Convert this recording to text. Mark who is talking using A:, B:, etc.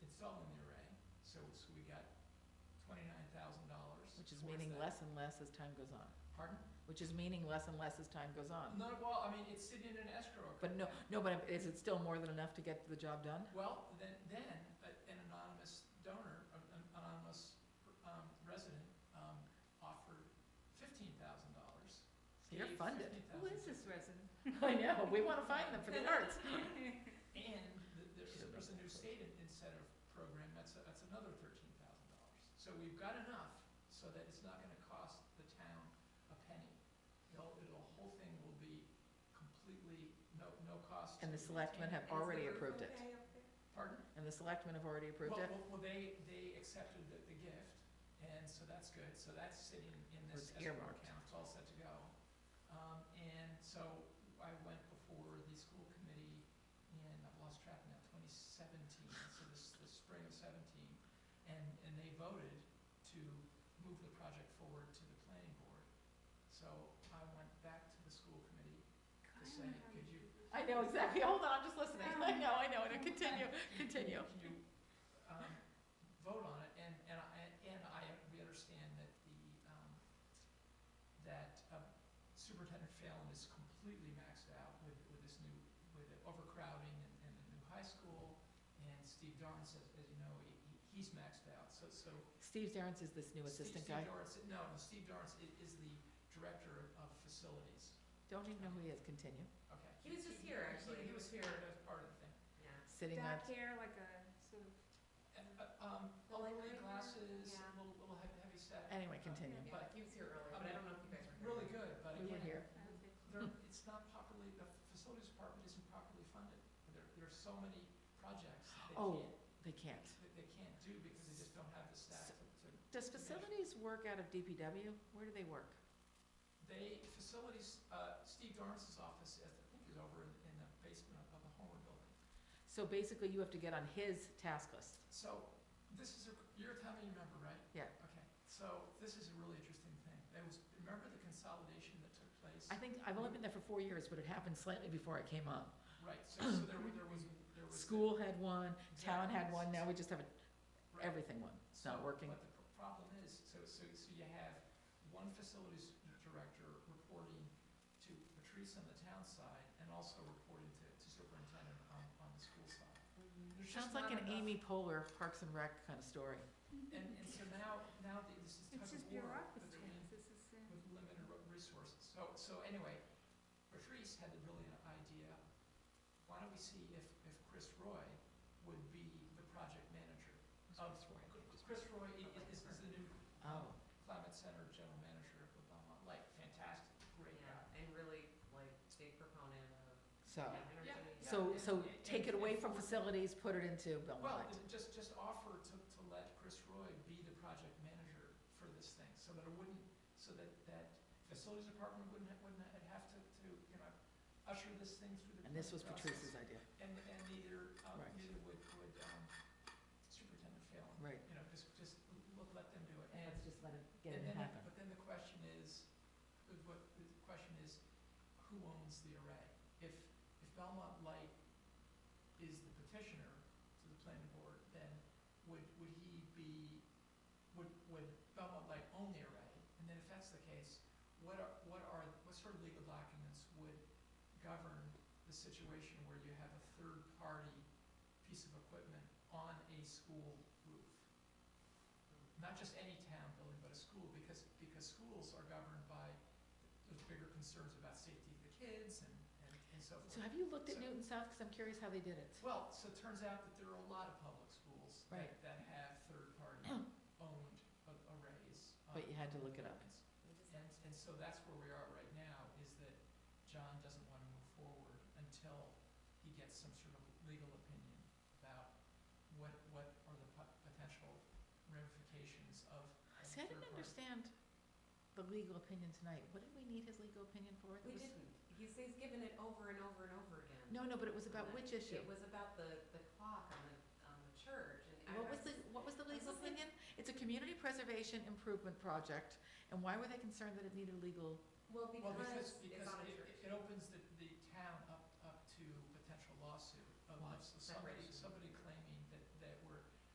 A: twenty-nine thousand dollars.
B: Which is meaning less and less as time goes on,
A: Pardon?
B: which is meaning less and less as time goes on.
A: No, well, I mean, it's sitting in an escrow account.
B: But no, no, but is it still more than enough to get the job done?
A: Well, then, then, a- an anonymous donor, an anonymous um, resident um, offered fifteen thousand dollars.
B: So You're funded.
C: Who is this resident?
B: I know, we want to find them for the arts.
A: And th- there's, there's a new state incentive program, that's, a- that's another thirteen thousand dollars. So we've got enough so that it's not gonna cost the town a penny. The whole, the whole thing will be completely, no, no cost. to
B: And the selectmen
A: town.
B: have already approved it.
A: Pardon?
B: And the selectmen have already approved
A: Well,
B: it.
A: Well, well, they, they accepted the, the gift, and so that's good, so that's sitting in this
B: It's
A: escrow
B: earmarked.
A: account, it's all set to go. Um, and so I went before the school committee in, I've lost track now, twenty seventeen, so this, the spring of seventeen, and, and they voted to move the project forward to the planning board. So I went back to the school committee to say, could you,
B: I know exactly, hold on, I'm just listening.
A: um,
B: I know, I know, and continue, continue.
A: Can you, um, vote on it, and, and I, and I, we understand that the, um, that uh, Superintendent Phelan is completely maxed out with, with this new, with the overcrowding and, and the new high school, and Steve Dorrance, as, as you know, he, he- he's maxed out, so, so.
B: Steve Zarens is this new
A: Steve-
B: assistant
A: Steve
B: guy.
A: Dorrance- no, no, Steve Dorrance i- is the director of facilities,
B: Don't even know who he is, continue.
A: okay.
C: He was just here, actually.
A: He was here, that's part of the thing.
B: Sitting on,
C: Dark hair, like a sort of.
A: And, uh, um,
C: The
A: little
C: light green one?
A: glasses,
C: Yeah.
A: a little, little heavy heavy set.
B: anyway, continue.
A: Yeah, like,
C: he was here earlier,
A: but I don't
C: know if you guys
A: Really good, but
B: We were
A: again,
B: here.
A: they're, it's not properly, the facilities department isn't properly funded. There, there are so many projects that they
B: Oh.
A: can't,
B: They can't.
A: that they can't do because they just don't have the staff to, to.
B: Does facilities work out of DPW? Where do they work?
A: They, facilities, uh, Steve Dorrance's office, I think is over in, in the basement of- of the Homewood Building.
B: So basically, you have to get on his task list.
A: So, this is a, you're a town meeting member, right?
B: Yeah.
A: Okay, so this is a really interesting thing. There was, remember the consolidation that took place?
B: I think, I've only been there for four years, but it happened slightly before I came on.
A: Right, so, so there, were- there was, there was.
B: School had one, town had one, now we just have a-
A: Right.
B: everything one. It's not
A: So,
B: working.
A: But the pr- problem is, so, so, so you have one facilities director reporting to Patrice on the town side and also reporting to, to superintendent on, on the school side. There's just
B: Sounds like
A: not
B: an
A: enough-
B: Amy Poehler Parks and Rec kind of story.
A: And, and so now, now the- this is tug
C: It's just
A: of war
C: bureaucracy,
A: between,
C: this is, uh,
A: with limited re- resources. So, so anyway, Patrice had the brilliant idea, why don't we see if, if Chris Roy would be the project manager? of- Chris Roy i- i- is, is the new
B: Oh,
A: Climate Center General Manager of Belmont Light, fantastic, great guy.
D: Yeah, and really like big proponent of
B: so,
D: energy.
A: Yeah.
B: Oh. so, so
A: Yeah.
B: take it away from facilities, put it into
A: Well,
B: Belmont.
A: and just, just offer to, to let Chris Roy be the project manager for this thing, so that it wouldn't, so that, that facilities department wouldn't, ha- wouldn't ha- have to, to, you know, usher this thing through the.
B: And this was
A: process.
B: Patrice's idea.
A: And, and neither, um,
B: Right.
A: neither would, would um, Superintendent Phelan.
B: Right.
A: You know, just, just l- let them do it. And-
B: Let's just let it get
A: And
B: it
A: then,
B: happen.
A: but then the question is, the- what, the question is, who owns the array? If, if Belmont Light is the petitioner to the planning board, then would, would he be, would, would Belmont Light own the array? And then if that's the case, what are, what are, what sort of legal documents would govern the situation where you have a third-party piece of equipment on a school roof? not just any town building, but a school, because, because schools are governed by, there's bigger concerns about safety of the kids and, and- and so
B: So
A: forth.
B: have you looked
A: So-
B: at Newton South? Because I'm curious how they did it.
A: Well, so it turns out that there are a lot of public schools
B: Right.
A: that, that have third-party owned a- arrays. um,
B: But you had to look it up.
A: And, and so that's where we are right now, is that John doesn't want to move forward until he gets some sort of legal opinion about what, what are the po- potential ramifications of. of
B: See, I didn't
A: third-party-
B: understand the legal opinion tonight. What did we need his legal opinion for? It
D: We
B: was-
D: didn't, he's, he's given it over and over and over again.
B: No, no, but it was about which
D: It
B: issue?
D: was about the, the clock on the, on the church and.
B: What was the, what was the legal opinion? It's a community preservation improvement project, and why were they concerned that it needed a legal?
D: Well,
A: Well, because,
D: because it's
A: because
D: on a
A: it,
D: church.
A: it opens the, the town up, up to potential lawsuit unless somebody,
D: Separation.
A: somebody claims